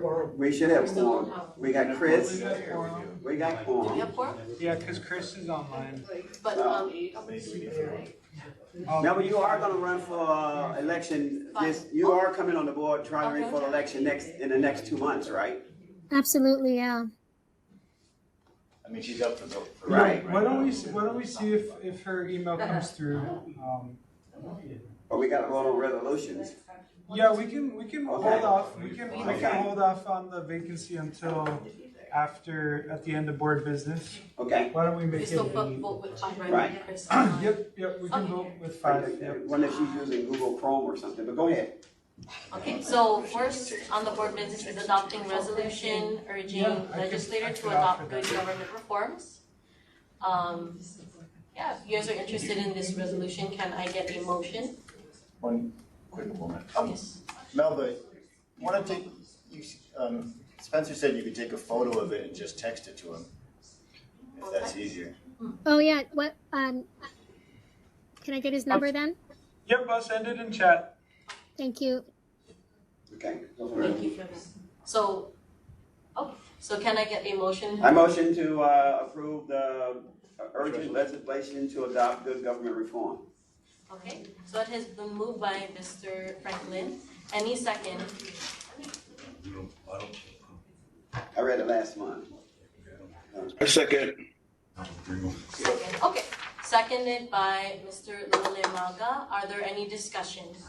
quorum. We should have We still quorum. don't have- We got Chris, We got four. we got Do we quorum. have four? Yeah, because Chris is online. But, um, Um, Remember, you are gonna run for, uh, election, this, you are coming on the board, trying to run for election next, in the next two months, right? Absolutely, yeah. I mean, she's up for vote. for- yeah, Right. Why don't we, s- why don't we see if, if her email Uh-huh. comes through? Um, But we gotta vote on resolutions. Yeah, we can, we can hold Okay. off, we can, we can Okay. hold off on the vacancy until after, at the end of board business. Okay. Why don't we we make it? still vote vote with five, right? Right. Chris, Yep, yep, we can Okay. vote with five, yep. One that she's using Google Chrome or something, but go ahead. Okay, so first on the board business is adopting resolution urging Yeah, I could- I legislator to could offer adopt good that. government reforms. Um, yeah, if you guys are interested in this resolution, can I get a motion? One quick moment. Yes. Melba, wanna take, you, s- um, Spencer said you could take a photo of it and just text it to him. If that's easier. Oh yeah. What? Um, can I get his number then? Yep, I'll send it in chat. Thank you. Okay. go for Thank it. you, Travis. So, oh, so can I get a motion? I motion to, uh, approve the urgent legislation to adopt good government reform. Okay, so it has been moved by Mr. Franklin. Any second? I read it last month. A second. Second. Okay, seconded by Mr. Lule Maga. Are there any discussions?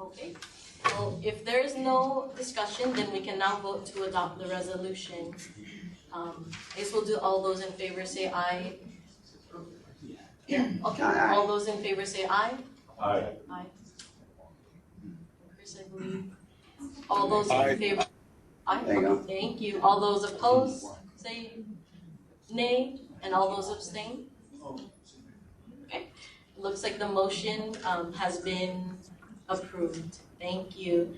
Okay, well, if there is no discussion, then we can now vote to adopt the resolution. Um, I guess we'll do all those in favor say aye. Yeah, okay, Aye. all those in favor say aye. Aye. Aye. Chris, I believe. All those Aye. in favor? Aye. There you go. Thank you. All those opposed, say nay, and all those abstain? Okay, looks like the motion, um, has been approved. Thank you.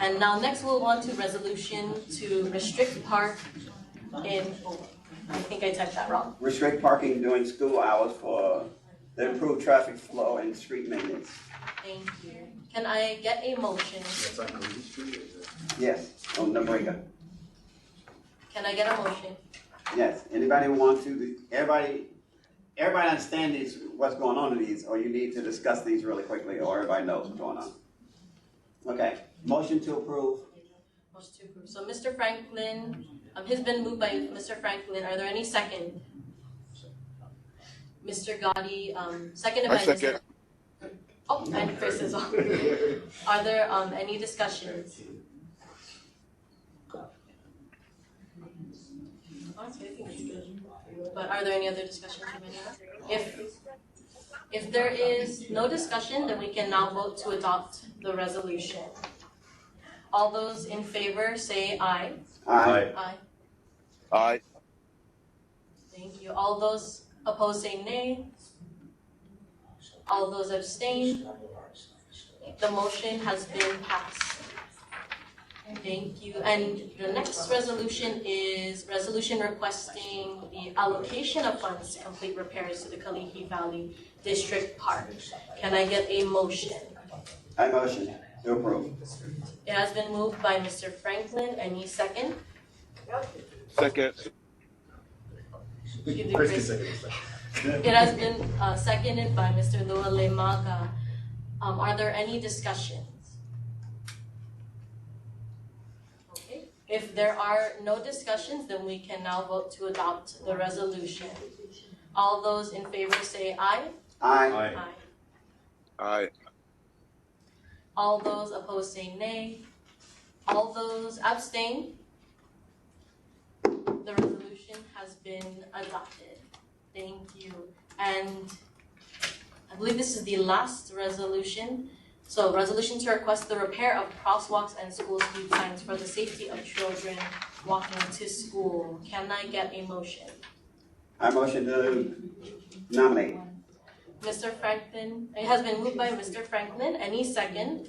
And now next we'll want to resolution to restrict park in, oh, I think I typed that wrong. Restrict parking during school hours for the improved traffic flow and street maintenance. Thank you. Can I get a motion? That's on Ruby Street, is it? Yes, on the breaker. Can I get a motion? Yes, anybody want to, everybody, everybody understand these, what's going on in these, or you need to discuss these really quickly, or everybody knows what's going on? Okay, motion to approve, Motion to approve. So Mr. Franklin, um, has been moved by Mr. Franklin. Are there any second? Mr. Gotti, um, seconded I by Mr. second. Oh, and Chris is on. Are there, um, any discussions? Honestly, I think it's good. But are there any other discussions from anyone? If, if there is no discussion, then we can now vote to adopt the resolution. All those in favor say aye. aye, Aye. Aye. Thank you. All those opposed say nay. All those abstain. The motion has been passed. Thank you. And the next resolution is resolution requesting the allocation of funds to complete repairs to the Kalihi Valley District Park. Can I get a motion? I motion to approve. It has been moved by Mr. Franklin. Any second? Second. Give the Chris Chris- can second It has been uh, seconded by Mr. Luale Maga. Um, Are there any discussions? Okay, if there are no discussions, then we can now vote to adopt the resolution. All those in favor say aye. Aye, Aye. Aye. All those opposed say nay. All those abstain. The resolution has been adopted. Thank you. And I believe this is the last resolution. So resolution to request the repair of crosswalks and school speed signs for the safety of children walking to school. Can I get a motion? I motion to nominate. Mr. Franklin, it has been moved by Mr. Franklin, any second?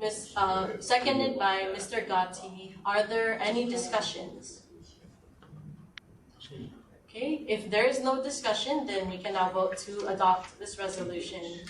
Miss, uh, seconded by Mr. Gotti, are there any discussions? Okay, if there is no discussion, then we can now vote to adopt this resolution.